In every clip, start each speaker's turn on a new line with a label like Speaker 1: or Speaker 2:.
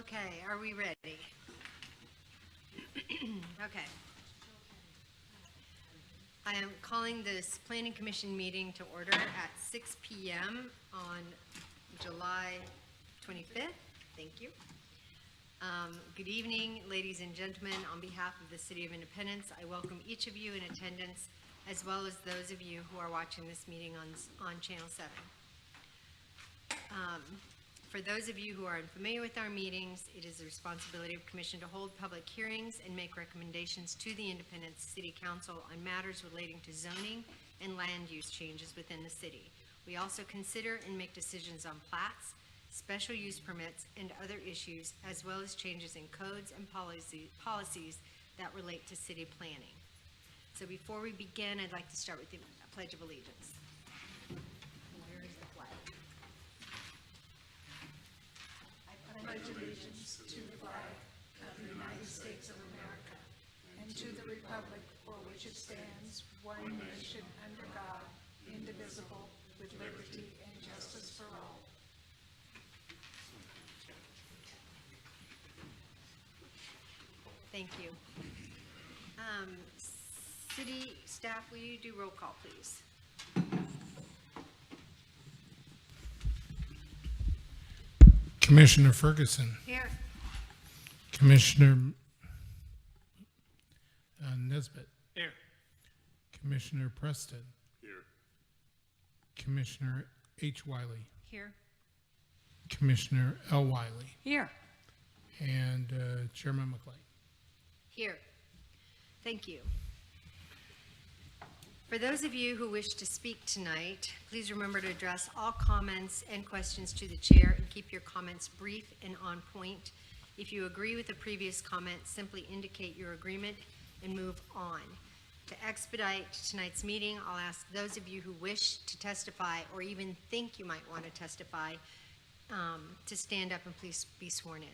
Speaker 1: Okay, are we ready? Okay. I am calling this planning commission meeting to order at 6 PM on July 25th. Thank you. Um, Good evening, ladies and gentlemen. On behalf of the City of Independence, I welcome each of you in attendance, as well as those of you who are watching this meeting on on Channel 7. Um, For those of you who are unfamiliar with our meetings, it is the responsibility of commission to hold public hearings and make recommendations to the Independent City Council on matters relating to zoning and land use changes within the city. We also consider and make decisions on plats, special use permits, and other issues, as well as changes in codes and policy- policies that relate to city planning. So before we begin, I'd like to start with the Pledge of Allegiance. Where is the flag? Thank you. Um, City staff, will you do roll call, please?
Speaker 2: Commissioner Ferguson,
Speaker 1: Here.
Speaker 2: Commissioner uh, Nesbitt,
Speaker 3: Here.
Speaker 2: Commissioner Preston,
Speaker 3: Here.
Speaker 2: Commissioner H. Wiley,
Speaker 1: Here.
Speaker 2: Commissioner L. Wiley,
Speaker 1: Here.
Speaker 2: and uh, Chairman McLean.
Speaker 1: Here. Thank you. For those of you who wish to speak tonight, please remember to address all comments and questions to the chair and keep your comments brief and on point. If you agree with the previous comment, simply indicate your agreement and move on. To expedite tonight's meeting, I'll ask those of you who wish to testify or even think you might want to testify um, to stand up and please be sworn in.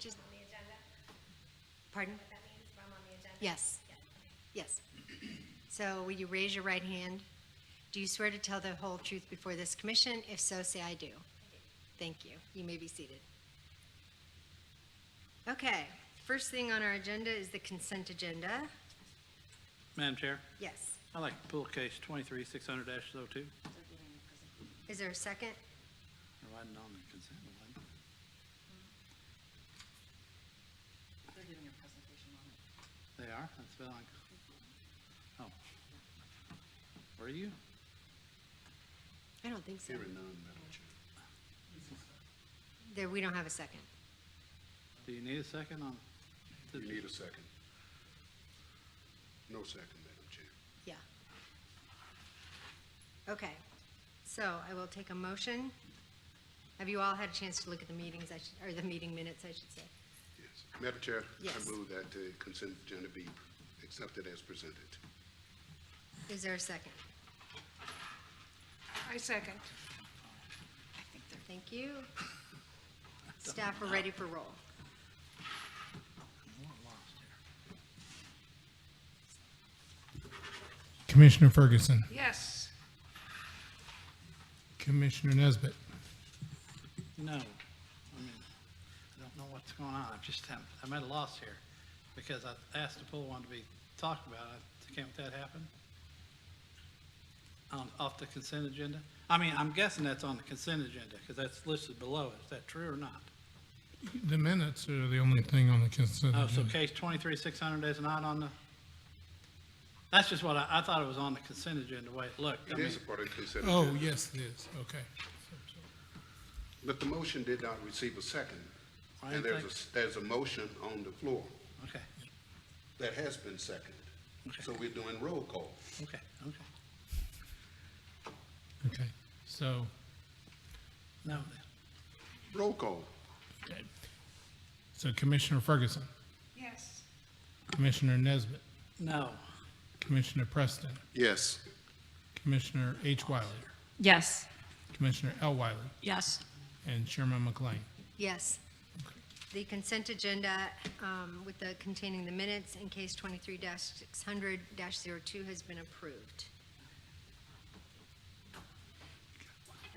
Speaker 1: Just- Pardon? Yes. Yes. So will you raise your right hand? Do you swear to tell the whole truth before this commission? If so, say I do. Thank you. You may be seated. Okay, first thing on our agenda is the consent agenda.
Speaker 3: Madam Chair,
Speaker 1: Yes.
Speaker 3: I'd like to pull case twenty-three, six hundred dash oh two.
Speaker 1: Is there a second?
Speaker 3: Or wasn't on the consent, was it?
Speaker 4: They're giving a presentation on it.
Speaker 3: They are, that's been like, oh. Were you?
Speaker 1: I don't think so. There, we don't have a second.
Speaker 3: Do you need a second on?
Speaker 5: You need a second. No second, Madam Chair.
Speaker 1: Yeah. Okay, so I will take a motion. Have you all had a chance to look at the meetings, I should, or the meeting minutes, I should say?
Speaker 5: Yes. Madam Chair?
Speaker 1: Yes.
Speaker 5: I move that the consent agenda be accepted as presented.
Speaker 1: Is there a second?
Speaker 4: I second.
Speaker 1: Thank you. Staff are ready for roll.
Speaker 2: Commissioner Ferguson,
Speaker 4: Yes.
Speaker 2: Commissioner Nesbitt,
Speaker 3: No. I mean, I don't know what's going on. I'm just, I'm, I'm at a loss here because I asked to pull one to be talked about. I- Can't that happen? On, off the consent agenda? I mean, I'm guessing that's on the consent agenda because that's listed below. Is that true or not?
Speaker 2: the minutes are the only thing on the consent
Speaker 3: Oh, so
Speaker 5: Mm-hmm.
Speaker 2: agenda.
Speaker 3: case twenty-three, six hundred is not on the, that's just what I, I thought it was on the consent agenda, wait, look, I
Speaker 5: It
Speaker 3: mean,
Speaker 5: is a part of the consent
Speaker 2: Oh,
Speaker 5: agenda.
Speaker 2: yes, it is, okay.
Speaker 5: But the motion did not receive a second.
Speaker 3: I
Speaker 5: And there's a,
Speaker 3: think-
Speaker 5: s- there's a motion on the floor
Speaker 3: okay,
Speaker 5: that has been seconded. So we're doing roll call.
Speaker 3: okay, okay.
Speaker 2: Okay, so,
Speaker 3: No,
Speaker 5: Roll call.
Speaker 2: okay. so Commissioner Ferguson,
Speaker 4: Yes.
Speaker 2: Commissioner Nesbitt,
Speaker 3: no,
Speaker 2: Commissioner Preston,
Speaker 5: Yes.
Speaker 2: Commissioner H. Wiley,
Speaker 6: Yes.
Speaker 2: Commissioner L. Wiley,
Speaker 6: Yes.
Speaker 2: and Chairman McLean.
Speaker 1: Yes. The consent agenda um, with the, containing the minutes in case 23-600-02 has been approved.